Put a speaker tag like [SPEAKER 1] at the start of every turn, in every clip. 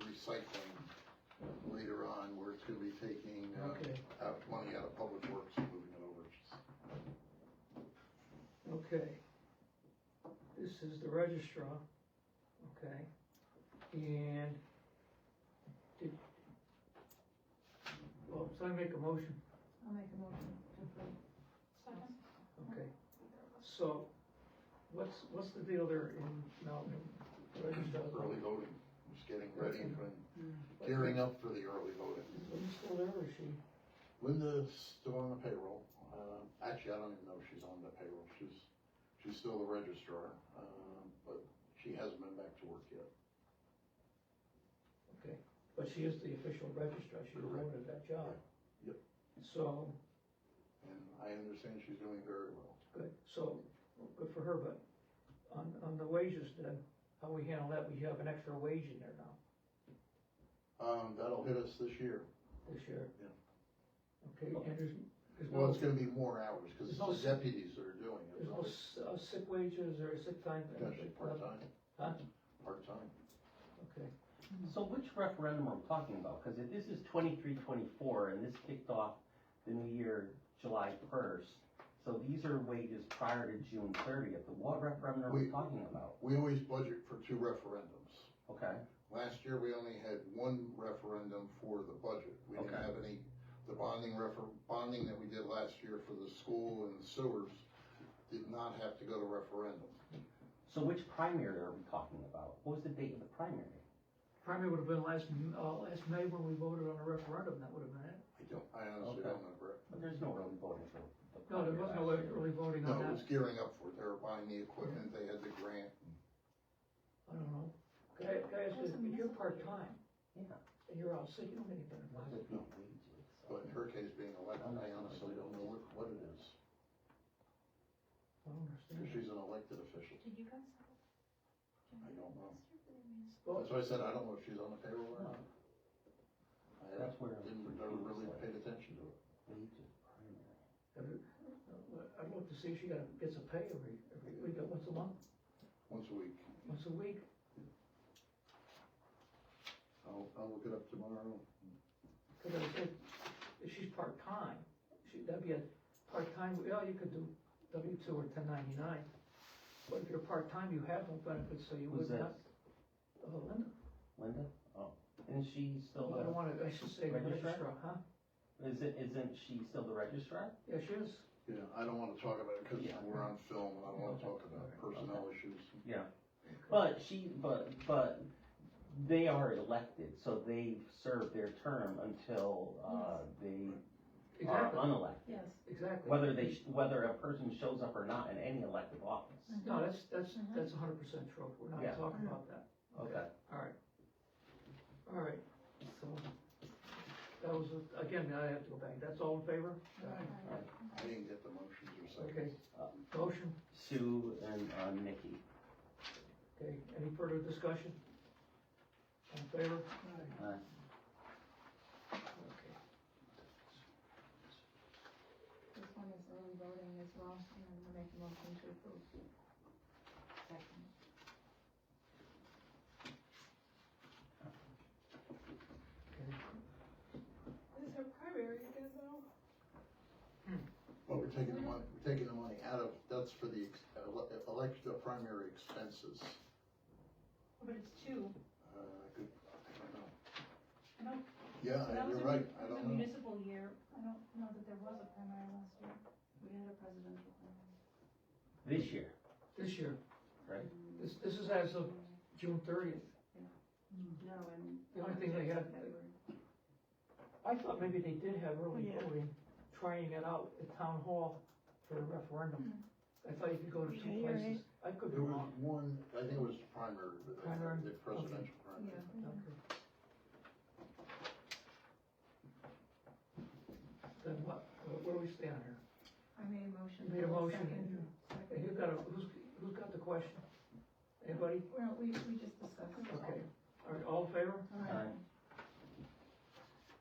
[SPEAKER 1] recycling later on, where it's gonna be taking,
[SPEAKER 2] Okay.
[SPEAKER 1] uh, out money out of public works and moving it over.
[SPEAKER 2] Okay. This is the registrar, okay? And did, well, so I make a motion,
[SPEAKER 3] I'll make a motion to approve. Second.
[SPEAKER 2] okay? So, what's, what's the deal there in Malibu? Registrar's
[SPEAKER 1] Early
[SPEAKER 2] office?
[SPEAKER 1] voting, just getting ready and gearing up for the early voting.
[SPEAKER 2] Are you still there, or is she?
[SPEAKER 1] Linda's still on the payroll, uh, actually, I don't even know if she's on the payroll, she's, she's still the registrar, uh, but she hasn't been back to work yet.
[SPEAKER 2] But she is the official registrar, she's
[SPEAKER 1] Correct.
[SPEAKER 2] awarded that job.
[SPEAKER 1] Yep.
[SPEAKER 2] So,
[SPEAKER 1] And I understand she's doing very well.
[SPEAKER 2] Good, so, good for her, but on, on the wages then, how we handle that, we have an extra wage in there now
[SPEAKER 1] Um, that'll hit us this year.
[SPEAKER 2] this year.
[SPEAKER 1] Yeah.
[SPEAKER 2] Okay, and there's, there's
[SPEAKER 1] Well,
[SPEAKER 2] no,
[SPEAKER 1] it's gonna be more hours, cause it's
[SPEAKER 2] There's no-
[SPEAKER 1] the deputies that are doing it.
[SPEAKER 2] there's no s- uh, sick wages or sick time? thing?
[SPEAKER 1] Potentially part-time.
[SPEAKER 2] Huh?
[SPEAKER 1] Part-time.
[SPEAKER 2] Okay,
[SPEAKER 4] So which referendum are we talking about? Because if this is twenty-three, twenty-four, and this kicked off the new year July first, so these are wages prior to June thirtieth, what referendum are we
[SPEAKER 1] We-
[SPEAKER 4] talking about?
[SPEAKER 1] We always budget for two referendums.
[SPEAKER 4] Okay,
[SPEAKER 1] Last year, we only had one referendum for the budget. We didn't
[SPEAKER 4] Okay.
[SPEAKER 1] have any, the bonding refer, bonding that we did last year for the school and sewers did not have to go to referendum.
[SPEAKER 4] so which primary are we talking about? What was the date of the primary?
[SPEAKER 2] primary would have been last, M- uh, last May when we voted on the referendum, that would have been it.
[SPEAKER 1] I don't, I honestly don't remember. it.
[SPEAKER 4] But there's no early voting for the
[SPEAKER 2] No, there
[SPEAKER 4] primary
[SPEAKER 2] was no
[SPEAKER 4] last year.
[SPEAKER 2] early voting
[SPEAKER 1] No,
[SPEAKER 2] on
[SPEAKER 1] it
[SPEAKER 2] that,
[SPEAKER 1] was gearing up for it. They were buying the equipment, they had the grant.
[SPEAKER 2] I don't know. Could I, could I ask you, if you're part-time
[SPEAKER 4] Yeah.
[SPEAKER 2] and you're out sick, you don't get any
[SPEAKER 4] Why
[SPEAKER 2] benefits.
[SPEAKER 4] would it be wages?
[SPEAKER 1] But in her case being elected, I honestly don't know what, what it is.
[SPEAKER 2] I don't understand.
[SPEAKER 1] Cause she's an elected official.
[SPEAKER 3] Did you guys?
[SPEAKER 1] I don't know.
[SPEAKER 2] Well,
[SPEAKER 1] That's why I said I don't know if she's on the payroll or not. I
[SPEAKER 4] That's where I'm
[SPEAKER 1] didn't, never
[SPEAKER 4] confused,
[SPEAKER 1] really
[SPEAKER 4] like,
[SPEAKER 1] paid attention to it.
[SPEAKER 4] Wages, primary.
[SPEAKER 2] I'd look uh, to see if she got, gets a pay every, every week, uh, once a month,
[SPEAKER 1] Once a week.
[SPEAKER 2] once a week.
[SPEAKER 1] I'll, I'll look it up tomorrow.
[SPEAKER 2] Cause I said, if she's part-time, she, that'd be a part-time, well, you could do W two or ten ninety-nine. But if you're part-time, you have no benefits, so you
[SPEAKER 4] Who's
[SPEAKER 2] would not.
[SPEAKER 4] that?
[SPEAKER 2] Oh, Linda,
[SPEAKER 4] Linda? Oh, and she's
[SPEAKER 2] I
[SPEAKER 4] still,
[SPEAKER 2] don't
[SPEAKER 4] the-
[SPEAKER 2] wanna, I should say
[SPEAKER 4] Registrar?
[SPEAKER 2] registrar, huh?
[SPEAKER 4] isn't, isn't she still the registrar?
[SPEAKER 2] Yeah, she is.
[SPEAKER 1] Yeah, I don't wanna talk about it, cause
[SPEAKER 4] Yeah.
[SPEAKER 1] we're on film, and I don't wanna talk about personnel issues.
[SPEAKER 4] But she, but, but they are elected, so they serve their term until, uh, they are
[SPEAKER 2] Exactly,
[SPEAKER 4] unelected.
[SPEAKER 3] Yes.
[SPEAKER 2] exactly.
[SPEAKER 4] Whether they, whether a person shows up or not in any elective office.
[SPEAKER 2] No, that's, that's,
[SPEAKER 3] Mhm.
[SPEAKER 2] that's hundred percent true, we're
[SPEAKER 4] Yeah.
[SPEAKER 2] not talking about that.
[SPEAKER 4] Okay,
[SPEAKER 2] Alright. Alright, so, that was, again, I have to go back, that's all in favor?
[SPEAKER 1] I didn't get the motions or
[SPEAKER 2] Okay,
[SPEAKER 1] seconds.
[SPEAKER 2] motion,
[SPEAKER 4] Sue and, uh, Nikki.
[SPEAKER 2] okay, any further discussion? All in favor?
[SPEAKER 4] Aye.
[SPEAKER 2] Okay.
[SPEAKER 3] This one is early voting as well, and then I'll make a motion to approve. Second. This is her primary, you guys know?
[SPEAKER 1] Well, we're taking the money, we're taking the money out of, that's for the ex- ele- elect, the primary expenses.
[SPEAKER 3] But it's two.
[SPEAKER 1] Uh, I could, I don't know.
[SPEAKER 3] I don't-
[SPEAKER 1] Yeah,
[SPEAKER 3] That was
[SPEAKER 1] you're
[SPEAKER 3] a-
[SPEAKER 1] right, I
[SPEAKER 3] It was a
[SPEAKER 1] don't know.
[SPEAKER 3] municipal year, I don't know that there was a primary last year. We had a presidential primary.
[SPEAKER 4] This year,
[SPEAKER 2] This year.
[SPEAKER 4] Right.
[SPEAKER 2] This, this is as of June thirtieth.
[SPEAKER 3] No, and.
[SPEAKER 2] The only thing they had-
[SPEAKER 3] February.
[SPEAKER 2] I thought maybe they did have early
[SPEAKER 3] Yeah.
[SPEAKER 2] voting, trying it out at town hall for the referendum. I thought you could go to
[SPEAKER 3] Hmm. Yeah,
[SPEAKER 2] two
[SPEAKER 3] you're
[SPEAKER 2] places, I could be
[SPEAKER 1] There was
[SPEAKER 2] wrong.
[SPEAKER 1] one, I think it was primary, but the-
[SPEAKER 2] Primary?
[SPEAKER 1] the presidential primary.
[SPEAKER 3] Yeah.
[SPEAKER 2] Okay. Then what, where do we stand here?
[SPEAKER 3] I made a motion.
[SPEAKER 2] You made a motion.
[SPEAKER 3] Second.
[SPEAKER 2] Hey, Who
[SPEAKER 3] Second.
[SPEAKER 2] got a, who's, who's got the question? Anybody?
[SPEAKER 3] Well, we, we just discussed. it.
[SPEAKER 2] Okay. All right, all in favor?
[SPEAKER 3] All right.
[SPEAKER 4] Aye.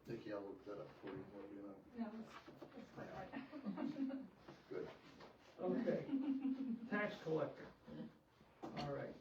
[SPEAKER 1] Nikki, I'll look that up for you, what do you know?
[SPEAKER 3] No, it's, it's quite all right.
[SPEAKER 2] Okay. Tax collector. All right.